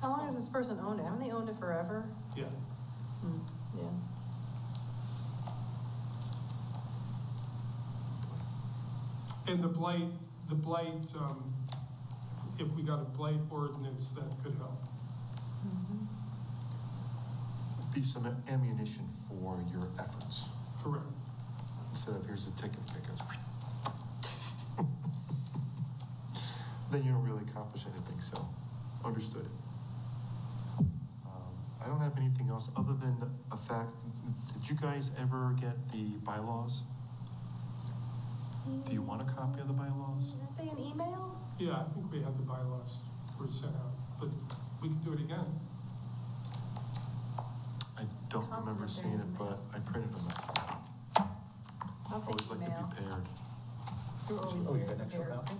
How long has this person owned it? Haven't they owned it forever? Yeah, Hmm, Yeah. and the blight, the blight, um, if we got a blight ordinance, that could help. Be some ammunition for your efforts, Correct. instead of here's a ticket that goes. Then you don't really accomplish anything, so, understood. Um, I don't have anything else, other than a fact, did you guys ever get the bylaws? Do you want a copy of the bylaws? Aren't they an email? Yeah, I think we have the bylaws were sent out, but we can do it again. I don't remember seeing it, but I printed them out. I'll take Always like to email. be paired. You're always Oh, you got very an extra prepared. copy?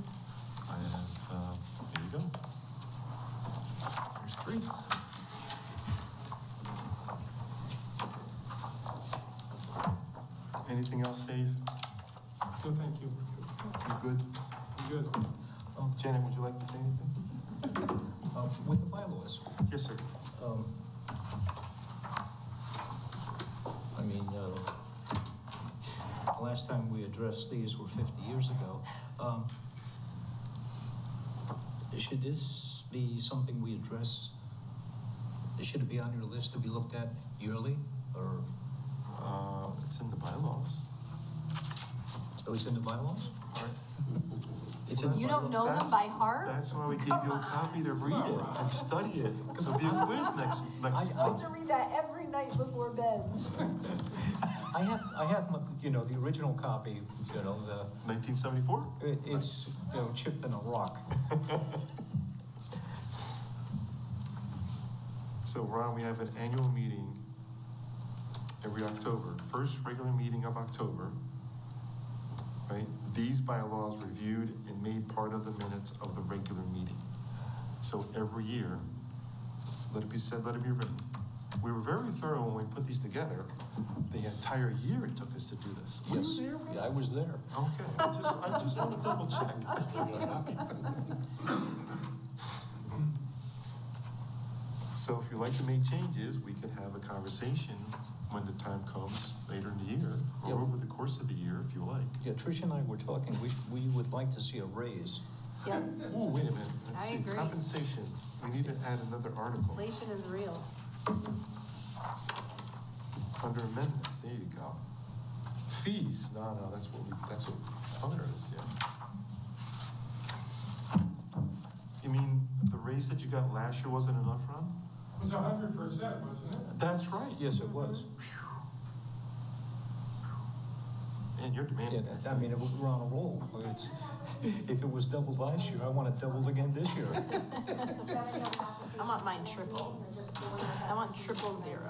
I have, uh, there you go. There's three. Anything else, Dave? No, thank you. You good? You're Good. Um, Janet, would you like to say anything? um, With the bylaws, Yes, sir. um, I mean, uh, the last time we addressed these were 50 years ago. Um, Should this be something we address? Should it be on your list to be looked at yearly, or Uh, it's in the bylaws. oh, it's in the bylaws? All right. It's in the You bylaws. don't know them by heart? That's why we gave you a copy to read it and study it. So be a quiz next, next I- I- month. to read that every night before bed. I have, I have, my- you know, the original copy, you know, the, 1974? It- It's, you know, chipped in a rock. So Ron, we have an annual meeting every October, first regular meeting of October. Right? These bylaws reviewed and made part of the minutes of the regular meeting. So every year, let it be said, let it be written. We were very thorough when we put these together. The entire year it took us to do this. Were you Yes, there, Ron? I was there. Okay, I just, I just want to double check. So if you'd like to make changes, we could have a conversation when the time comes later in the year, Yeah. or over the course of the year, if you like. Yeah, Tricia and I were talking, we, we would like to see a raise. Yep, Ooh, wait a minute, let's I see, agree. compensation, we need to add another article, inflation is real. under amendments, there you go. Fees, no, no, that's what, we that's what other is, yeah. You mean, the raise that you got last year wasn't enough, Ron? It was a hundred percent, wasn't it? That's right. Yes, it was. And you're Yeah, demanding. that- I mean, it was- we're on a roll. It's- If it was doubled last year, I want it doubled again this year. I want mine triple. I want triple zero.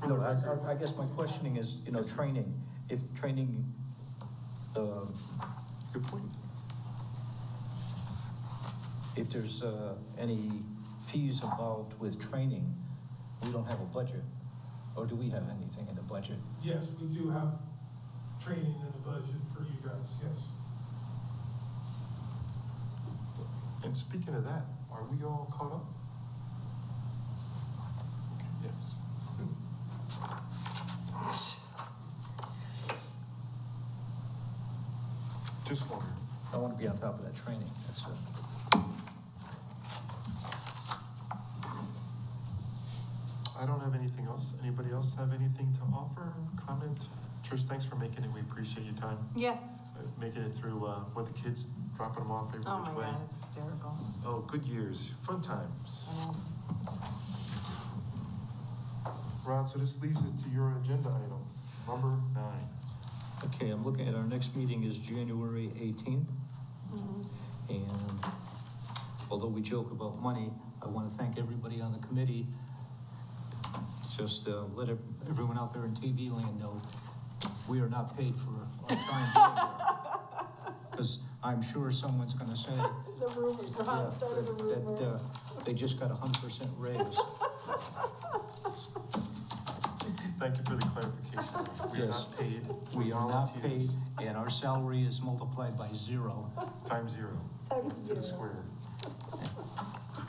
No, I, I- I guess my questioning is, you know, training, if training, uh, Good point. if there's uh, any fees involved with training, we don't have a budget, or do we have anything in the budget? Yes, we do have training in the budget for you guys, yes. And speaking of that, are we all caught up? Yes. Just wondering. I want to be on top of that training, that's it. I don't have anything else. Anybody else have anything to offer, comment? Trish, thanks for making it. We appreciate your time, Yes. uh, making it through, uh, with the kids, dropping them off every Oh my which way. God, it's hysterical. Oh, good years, fun times. I know. Ron, so this leaves us to your agenda item, number nine. Okay, I'm looking at our next meeting is January 18th. Mm-hmm. And although we joke about money, I want to thank everybody on the committee. Just uh, let ev- everyone out there in TV land know, we are not paid for our time Because I'm sure someone's going to say. The rumor, Ron yeah, started the that, rumor. uh, They just got a 100% raise. Thank you for the clarification. We are Yes. not paid. We are not paid, volunteers. and our salary is multiplied by zero. Time zero. Times To the zero. square.